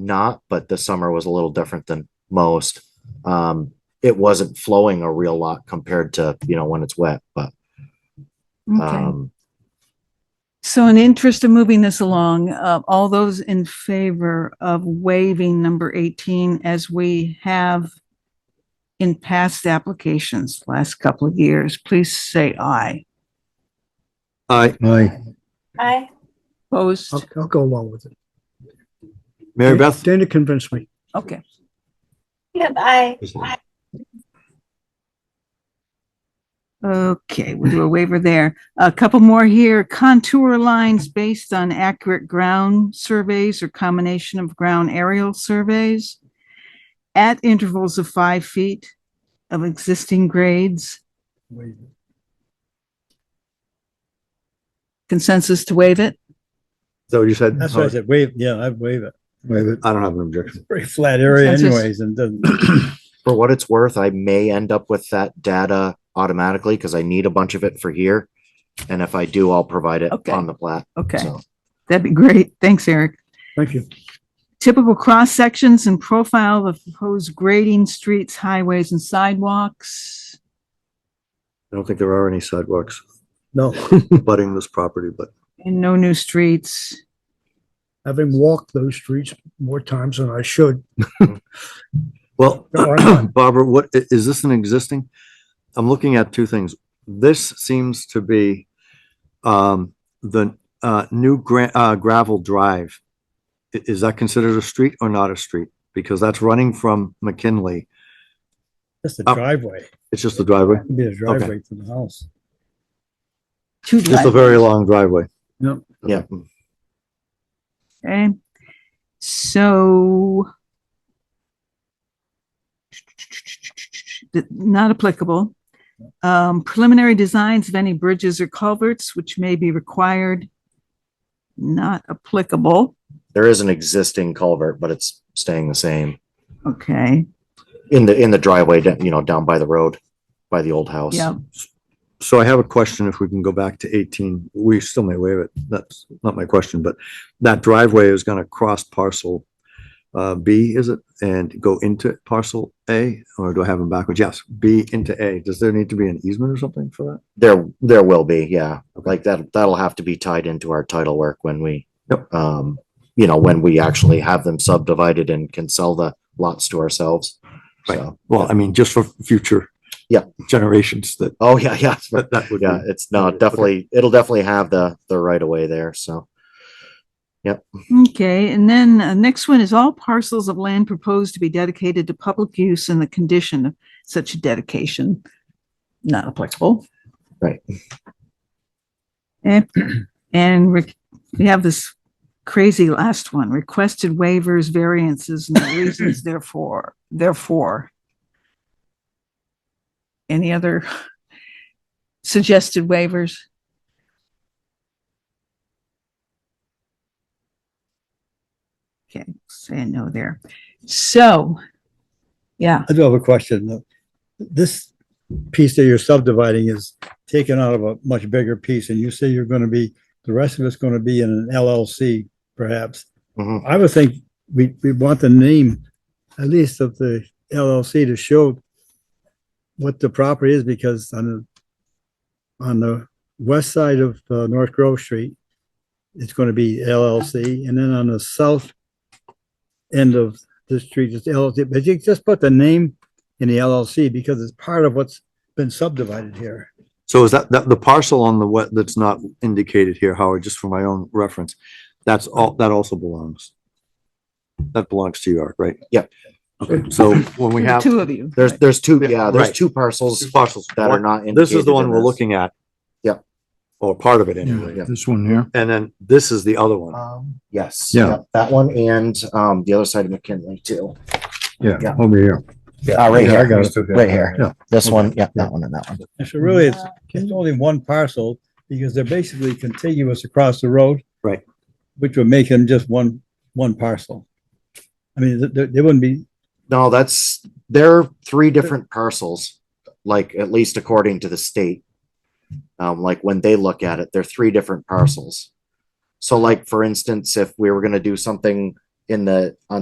not, but this summer was a little different than most. Um, it wasn't flowing a real lot compared to, you know, when it's wet, but, Okay. um, So in the interest of moving this along, uh, all those in favor of waiving number 18 as we have in past applications last couple of years, please say aye. Aye. Aye. Aye. Opposed? I'll, I'll go along with it. Mary Beth? Dana convinced me. Okay. Yep, aye. Okay, we'll do a waiver there. A couple more here. Contour lines based on accurate ground surveys or combination of ground aerial surveys at intervals of five feet of existing grades. Consensus to waive it? Is that what you said? That's what I said, wave, yeah, I'd wave it. Wait, but I don't have an objection. Pretty flat area Consensus. anyways, and doesn't, for what it's worth, I may end up with that data automatically because I need a bunch of it for here. And if I do, I'll provide it Okay. on the plat. Okay, So that'd be great. Thanks, Eric. Thank you. Typical cross sections and profile of proposed grading streets, highways and sidewalks. I don't think there are any sidewalks No, abutting this property, but And no new streets. having walked those streets more times than I should. Well, Go on. Barbara, what, i- is this an existing? I'm looking at two things. This seems to be um, the uh, new gra- uh, gravel drive. I- Is that considered a street or not a street? Because that's running from McKinley. just a Up. driveway, It's just a driveway. it'd be a driveway to the house. Two Just a very long driveway. Yeah, Okay, so. Th- Not applicable. Um, preliminary designs of any bridges or culverts which may be required. Not applicable, there is an existing culvert, but it's staying the same okay, in the, in the driveway, da- you know, down by the road, by the old house. yeah, So I have a question if we can go back to 18. We still may waive it. That's not my question, but that driveway is going to cross parcel uh, B, is it? And go into parcel A, or do I have them backwards? Yes, B into A. Does there need to be an easement or something for There, there will be, yeah. Like that, that'll have to be tied into our title work when we, Yep. um, you know, when we actually have them subdivided and can sell the lots to ourselves. Right. So, that? Well, I mean, just for future Yeah. generations that, oh, yeah, yeah. that that would be. Yeah, it's no, Okay. definitely, it'll definitely have the, the right of way there, so. okay, and then uh, next one is all parcels of land proposed to be dedicated to public use and the condition of such dedication. Not applicable. Right. And, and we, we have this crazy last one, requested waivers, variances, and the reasons therefore, therefore. Any other suggested waivers? Okay, say no there. So, yeah, I do have a question, this piece that you're subdividing is taken out of a much bigger piece, and you say you're gonna be, the rest of it's gonna be in an LLC perhaps. Mhm. I would think we, we want the name, at least of the LLC to show what the property is, because on the, on the west side of uh, North Grove Street, it's gonna be LLC, and then on the south end of the street, it's LLC, but you just put the name in the LLC because it's part of what's been subdivided here. So is that, that the parcel on the wet that's not indicated here, Howard, just for my own reference, that's all, that also belongs. That belongs to York, right? Yep. Okay, so when we the have two of you. There's, there's two, yeah, there's Right. two parcels parcels that are not. This is indicated the one in we're this. looking at. Yep. Or part of it anyway. Yeah. This one here. And then this is the other one. Um, yes. Yeah. yep, That one and, um, the other side of McKinley too. Yeah. over here. Uh, right Yeah, I here, got it. right here. Yeah. This one, yeah, that one and that one. And so really, it's, it's only one parcel because they're basically contiguous across the road. Right. Which would make them just one, one parcel. I mean, th- th- they wouldn't be, No, that's, there are three different parcels, like at least according to the state. Um, like when they look at it, they're three different parcels. So like, for instance, if we were gonna do something in the, on